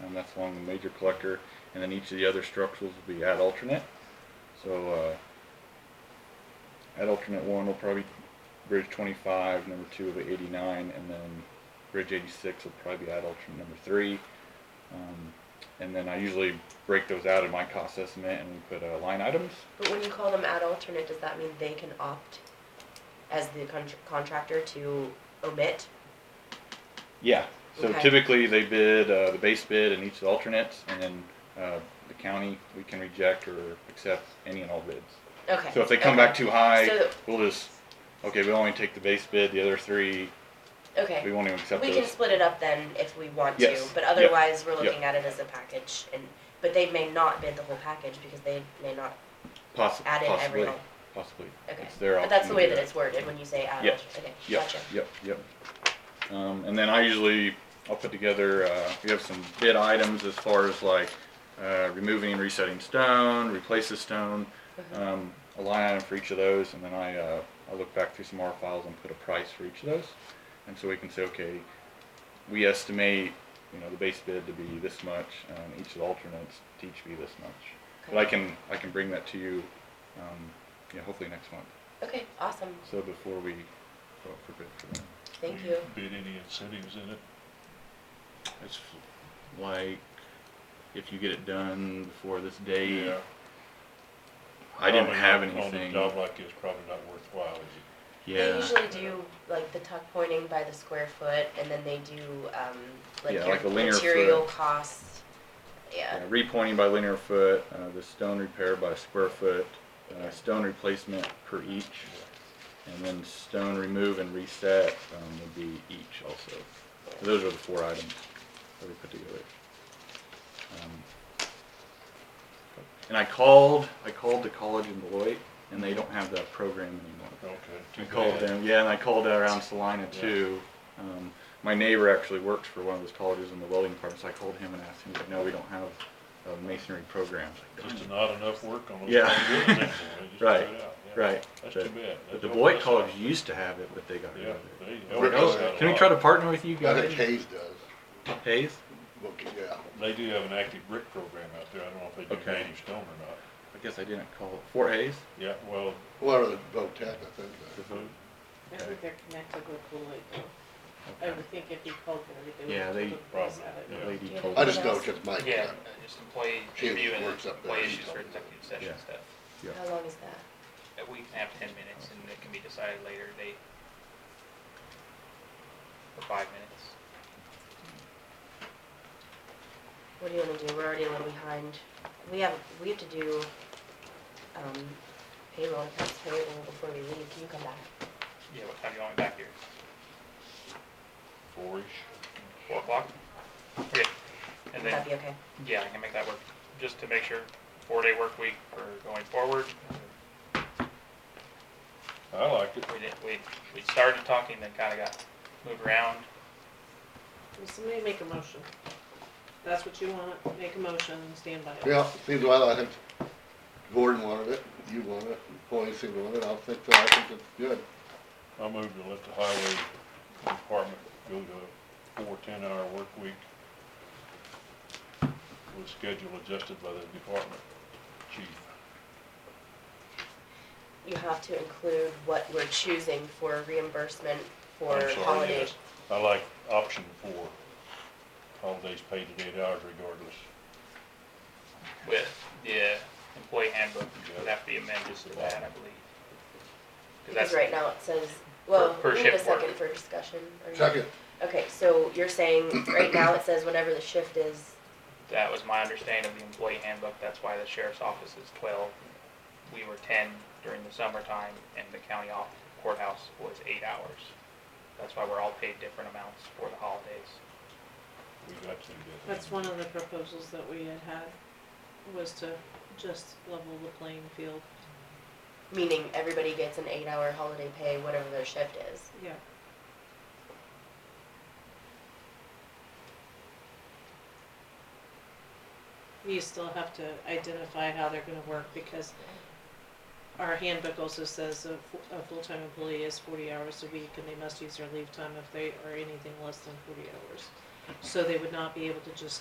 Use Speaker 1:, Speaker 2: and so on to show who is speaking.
Speaker 1: and that's along the major collector, and then each of the other structurals will be at alternate. So, uh, at alternate one will probably be bridge twenty-five, number two will be eighty-nine, and then bridge eighty-six will probably be at alternate number three. Um, and then I usually break those out in my cost estimate and we put, uh, line items.
Speaker 2: But when you call them ad alternate, does that mean they can opt as the con- contractor to omit?
Speaker 1: Yeah, so
Speaker 2: Okay.
Speaker 1: typically they bid, uh, the base bid and each of the alternates, and then, uh, the county, we can reject or accept any and all bids.
Speaker 2: Okay.
Speaker 1: So if they come back
Speaker 2: okay.
Speaker 1: too high,
Speaker 2: So-
Speaker 1: we'll just, okay, we only take the base bid, the other three, we
Speaker 2: Okay,
Speaker 1: won't even accept
Speaker 2: we can
Speaker 1: those.
Speaker 2: split it up then if we want to,
Speaker 1: Yes.
Speaker 2: but
Speaker 1: Yep.
Speaker 2: otherwise, we're
Speaker 1: Yep.
Speaker 2: looking at it as a package and, but they may not bid the whole package because they may not
Speaker 1: Possi-
Speaker 2: add in every
Speaker 1: Possibly,
Speaker 2: one.
Speaker 1: possibly.
Speaker 2: Okay.
Speaker 1: It's their
Speaker 2: But that's
Speaker 1: option to
Speaker 2: the way
Speaker 1: do
Speaker 2: that it's worded when you say ad
Speaker 1: Yep.
Speaker 2: alternate, okay,
Speaker 1: Yep,
Speaker 2: gotcha.
Speaker 1: yep, yep. Um, and then I usually, I'll put together, uh, we have some bid items as far as like, uh, removing and resetting stone, replace the stone, um, a line item for each of those, and then I, uh, I look back through some R files and put a price for each of those. And so we can say, okay, we estimate, you know, the base bid to be this much, um, each of the alternates to each be this much. But I can, I can bring that to you, um, yeah, hopefully next month,
Speaker 2: Okay, awesome,
Speaker 1: so before we go out for bid for that.
Speaker 2: thank
Speaker 3: Will
Speaker 2: you.
Speaker 3: Bid any incentives in it? It's, f-
Speaker 1: like if you get it done before this date.
Speaker 3: yeah.
Speaker 1: I didn't
Speaker 3: Probably
Speaker 1: have
Speaker 3: not- On
Speaker 1: anything.
Speaker 3: a job like this, probably not worthwhile, is it?
Speaker 2: They
Speaker 1: Yeah.
Speaker 2: usually do like the tuck pointing by the square foot and then they do, um, like
Speaker 1: Yeah, like a
Speaker 2: your
Speaker 1: linear
Speaker 2: material
Speaker 1: foot.
Speaker 2: costs, yeah,
Speaker 1: Yeah, repointing by linear foot, uh, the stone repair by square foot, uh, stone replacement per each, and then stone remove and reset um, would be each also. So those are the four items that we put together. Um, and I called, I called the college in Beloit, and they don't have that program anymore.
Speaker 3: Okay.
Speaker 1: I
Speaker 3: too
Speaker 1: called
Speaker 3: bad.
Speaker 1: them, yeah, and I called around Salina
Speaker 3: Yeah.
Speaker 1: too. Um, my neighbor actually works for one of those colleges in the welding department, so I called him and asked him, he's like, no, we don't have a masonry program. I was like,
Speaker 3: Just not enough work on those.
Speaker 1: Yeah.
Speaker 3: kind of buildings anymore, they just
Speaker 1: Right,
Speaker 3: threw it out, yeah.
Speaker 1: Right.
Speaker 3: That's
Speaker 1: But-
Speaker 3: too bad.
Speaker 1: But
Speaker 3: That
Speaker 1: the
Speaker 3: helped
Speaker 1: Beloit
Speaker 3: us
Speaker 1: College
Speaker 3: out.
Speaker 1: used to have it, but they got rid
Speaker 3: Yeah,
Speaker 1: of it.
Speaker 3: they
Speaker 4: Rick,
Speaker 3: helped us out a
Speaker 1: Can we
Speaker 3: lot.
Speaker 1: try to partner with you
Speaker 4: I think
Speaker 1: guys,
Speaker 4: Hayes does,
Speaker 1: Hayes?
Speaker 4: Look, yeah.
Speaker 3: They do have an active brick program out there, I don't know if they do
Speaker 1: Okay.
Speaker 3: native stone or not.
Speaker 1: I guess I didn't call it, Fort Hayes?
Speaker 3: Yeah, well,
Speaker 4: Well, the Votech, I think, does.
Speaker 5: I think they're connected with Beloit though. I
Speaker 1: Okay.
Speaker 5: would think if you called them, they would.
Speaker 1: Yeah, they-
Speaker 3: Probably,
Speaker 1: The
Speaker 3: yeah.
Speaker 1: lady
Speaker 2: Yeah.
Speaker 1: told
Speaker 4: I
Speaker 1: me.
Speaker 4: just know just Mike,
Speaker 6: Yeah,
Speaker 4: yeah.
Speaker 6: and uh, just employee
Speaker 4: She
Speaker 6: review and
Speaker 4: works up there.
Speaker 6: employee issues for executive session
Speaker 1: Yeah.
Speaker 6: stuff.
Speaker 1: Yeah.
Speaker 2: how long is that?
Speaker 6: A week and a half, ten minutes, and it can be decided later, they, for five minutes.
Speaker 2: What do you wanna do? We're already a little behind. We have, we have to do, um, payroll and tax payable before we leave. Can you come back?
Speaker 6: Yeah, what time do you want me back here?
Speaker 3: four-ish.
Speaker 6: Four o'clock? Okay, and
Speaker 2: Would
Speaker 6: then,
Speaker 2: that be okay?
Speaker 6: yeah, I can make that work, just to make sure, four-day work week for going forward.
Speaker 3: I liked it.
Speaker 6: We did, we, we started talking, then kinda got moved around,
Speaker 5: Well, Somebody make a motion. That's what you want, make a motion, and stand by it.
Speaker 4: Yeah, seems well, I think Gordon wanted it, you wanted it, Hoy seemed to want it, I think, so I think it's good.
Speaker 3: I moved to let the highway department go to a four ten-hour work week with schedule adjusted by the department chief.
Speaker 2: You have to include what we're choosing for reimbursement for
Speaker 3: I'm sorry,
Speaker 2: holiday.
Speaker 3: yes. I like option four, holidays paid at eight hours regardless.
Speaker 6: with the employee handbook, would
Speaker 3: Yeah.
Speaker 6: have to be amended to that, I believe.
Speaker 2: Because
Speaker 6: that's-
Speaker 2: right now it says, well,
Speaker 6: per
Speaker 2: we need a
Speaker 6: shift work.
Speaker 2: second for discussion. or-
Speaker 4: Second,
Speaker 2: Okay, so you're saying, right now it says whatever the shift is,
Speaker 6: That was my understanding of the employee handbook, that's why the sheriff's office is twelve. We were ten during the summertime, and the county off- courthouse was eight hours. That's why we're all paid different amounts for the holidays.
Speaker 3: We got to do that.
Speaker 5: That's one of the proposals that we had had, was to just level the playing field.
Speaker 2: meaning everybody gets an eight-hour holiday pay, whatever their shift is.
Speaker 5: Yeah. You still have to identify how they're gonna work because our handbook also says a, fu- a full-time employee is forty hours a week and they must use their leave time if they are anything less than forty hours. So they would not be able to just